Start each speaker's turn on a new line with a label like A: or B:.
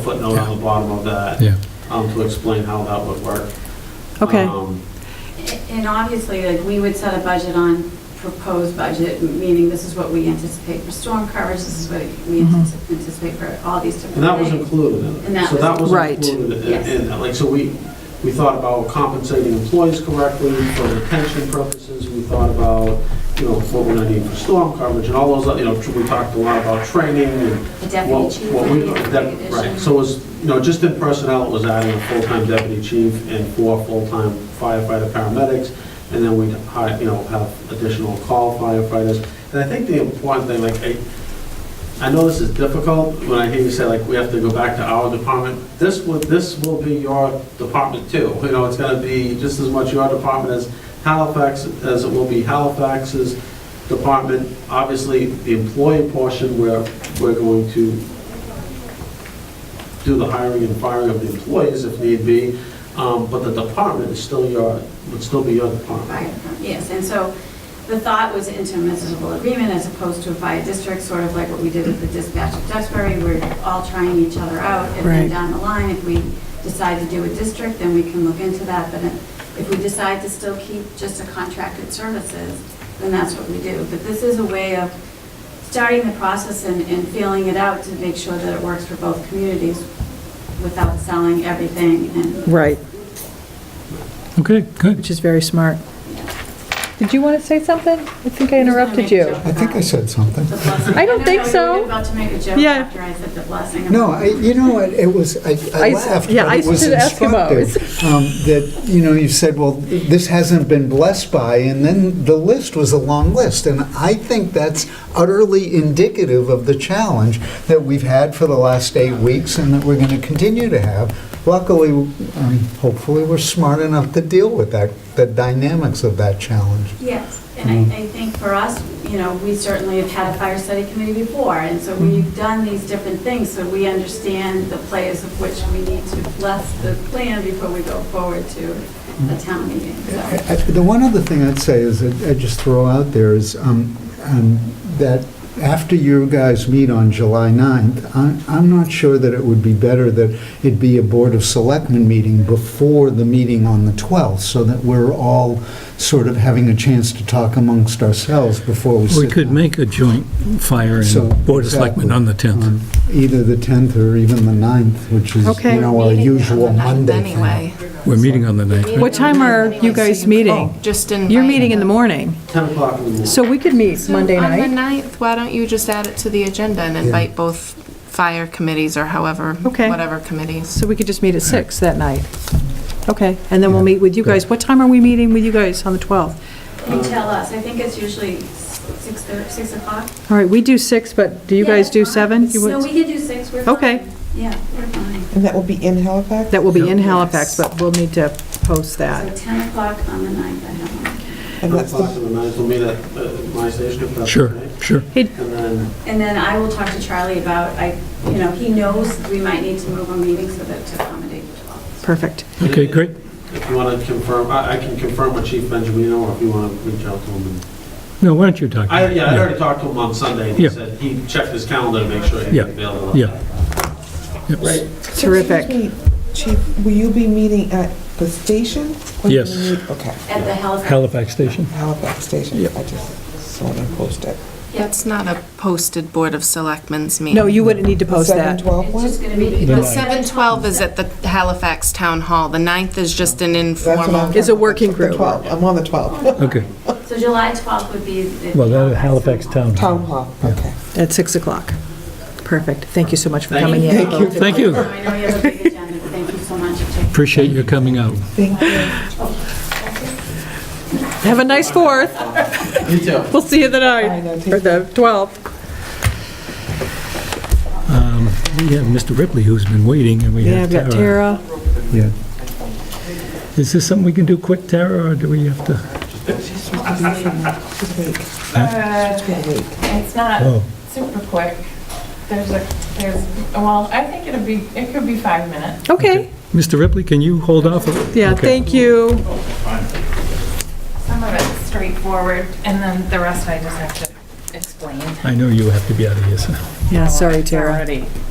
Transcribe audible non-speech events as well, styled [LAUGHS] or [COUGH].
A: footnote on the bottom of that
B: Yeah,
A: um, to explain how that would work.
C: Okay,
A: Um,
D: And obviously, like, we would set a budget on proposed budget, meaning this is what we anticipate for storm coverage, this is what we
C: Mhm.
D: antici- anticipate for all these different
A: And that was
D: things.
A: included in it.
D: And that
A: So that
D: was-
A: was
C: Right.
A: included in-
D: Yes.
A: in that. Like, so we, we thought about compensating employees correctly for retention purposes. We thought about, you know, what we're going to need for storm coverage and all those, you know, we talked a lot about training and
D: The
A: what
D: deputy chief
A: what
D: would
A: we,
D: be a
A: that-
D: great
A: right.
D: addition.
A: So it was, you know, just in personnel, it was adding a full-time deputy chief and four full-time firefighter paramedics. And then we'd, hi- you know, have additional call firefighters. And I think the important thing, like, I, I know this is difficult, when I hear you say, like, we have to go back to our department, this would, this will be your department too. You know, it's gonna be just as much your department as Halifax, as it will be Halifax's department. Obviously, the employee portion, where we're going to do the hiring and firing of the employees if need be, um, but the department is still your, would still be your department.
D: Fire department, Yes, and so the thought was intermunicipal agreement as opposed to by district, sort of like what we did with the dispatch of Duxbury, we're all trying each other out, and
C: Right.
D: then down the line, if we decide to do a district, then we can look into that, but if if we decide to still keep just a contracted services, then that's what we do. But this is a way of starting the process and, and feeling it out to make sure that it works for both communities without selling everything and.
C: right,
B: okay, good.
C: which is very smart. Did you want to say something? I think I
D: I'm just gonna
C: interrupted
D: make a
C: you.
D: joke
E: I think I
D: about it.
E: said something.
D: The blessing.
C: I don't think
D: know,
C: so.
D: You were about to make a joke
C: Yeah.
D: after I said the blessing.
E: No, I, you know, what, it was, I
C: I
E: I
C: s-
E: laughed,
C: yeah,
E: but
C: I
E: it was
C: stood Eskimos.
E: instructive. um, That, you know, you said, well, this hasn't been blessed by, and then the list was a long list. And I think that's utterly indicative of the challenge that we've had for the last eight weeks and that we're going to continue to have. Luckily, um, hopefully, we're smart enough to deal with that, the dynamics of that challenge.
D: Yes, and I, I think for us, you know, we certainly have had a fire study committee before, and so
E: Mm-hmm.
D: we've done these different things, so we understand the players of which we need to bless the plan before we go forward to
E: Mm-hmm.
D: a town meeting, so.
E: I- I- The one other thing I'd say is, that I'd just throw out there is um, um, that after you guys meet on July 9th, I- I'm not sure that it would be better that it be a Board of Selectmen meeting before the meeting on the 12th, so that we're all sort of having a chance to talk amongst ourselves before we sit
B: We could
E: down.
B: make a joint fire
E: So,
B: and Board of Selectmen
E: exactly,
B: on the 10th.
E: on Either the 10th or even the 9th, which is,
C: Okay.
E: you know, our
F: meeting
E: usual
F: on the ninth
E: Monday thing.
F: Anyway.
B: We're meeting on the 9th, right?
C: What time are you guys meeting?
F: Oh, Just in.
C: You're meeting in the morning,
A: 10 o'clock in the morning.
C: so we could meet
F: So
C: Monday
F: On the
C: night.
F: ninth, why don't you just add it to the agenda and invite both fire committees or however,
C: Okay.
F: whatever committees?
C: So we could just meet at six that night. Okay, and then we'll meet with you guys. What time are we meeting with you guys on the 12th?
E: Um,
D: And tell us, I think it's usually six, thir- six o'clock.
C: All right, we do six, but do you
D: Yeah,
C: guys do
D: that's fine.
C: seven? You
D: No,
C: would-
D: we can do six, we're fine.
C: Okay.
D: Yeah, we're fine.
G: And that will be in Halifax?
C: That will be in
F: Yes.
C: Halifax, but we'll need to post
D: So
C: that.
D: 10 o'clock on the ninth, I have one.
A: 10
G: And that's
A: o'clock
G: the,
A: in the night, we'll meet at uh, my station if that's
B: Sure,
A: okay.
B: sure.
A: And then,
D: And then I will talk to Charlie about, I, you know, he knows we might need to move a meeting so that to accommodate the 12th.
C: Perfect.
B: Okay, great.
A: if you want to confirm, I I can confirm with Chief Benjamino, or if you want to reach out to him. and-
B: No, why don't you talk?
A: I, yeah, I already talked to him on Sunday, and he
B: Yeah.
A: said he checked his calendar to make sure he'd be
B: Yeah,
A: available.
B: yeah. Yep.
C: Terrific.
G: Excuse me, Chief, will you be meeting at the station? Or you
B: Yes.
G: need- Okay,
D: At the Halifax.
B: Halifax Station.
G: Halifax Station.
B: Yep.
G: I just saw them posted.
D: Yes.
F: That's not a posted Board of Selectmen's meeting.
C: No, you wouldn't need to post that.
G: 7:12
D: It's
G: one?
D: just gonna be.
F: The seven twelve is at the Halifax Town Hall. The ninth is just an
G: That's what I'm
F: informal.
G: talking
C: It's a
G: about,
C: working
G: the
C: group.
G: 12. I'm on the 12th.
D: [LAUGHS]
B: Okay.
D: So July 12th would be. the
B: Well, that Halifax Town.
G: Town Hall, okay.
C: At 6 o'clock. Perfect. Thank you so much for
A: Thank
C: coming
A: you.
C: in.
B: Thank you.
D: Oh, I know you have a big agenda, but thank you so much for taking.
B: Appreciate your coming out.
G: Thank you.
C: Have a nice 4th.
A: You too.
C: We'll see you the
G: I know,
C: night,
G: take
C: or the 12th.
B: Um, We have Mr. Ripley who's been waiting, and we
C: Yeah,
B: have
C: I've got
B: Tara.
C: Tara.
E: Yeah.
B: Is this something we can do quick, Tara, or do we have to?
G: She's awake.
H: Uh,
G: She's awake.
H: It's not
B: Oh,
H: super quick. There's a, there's, well, I think it'll be, it could be five minutes.
C: Okay,
B: Mr. Ripley, can you hold off?
C: yeah,
B: Okay.
C: thank you.
H: Some of it's straightforward, and then the rest I just have to explain.
B: I know you have to be out of here, so.
C: Yeah, sorry,
H: It's
C: Tara.
H: already uh,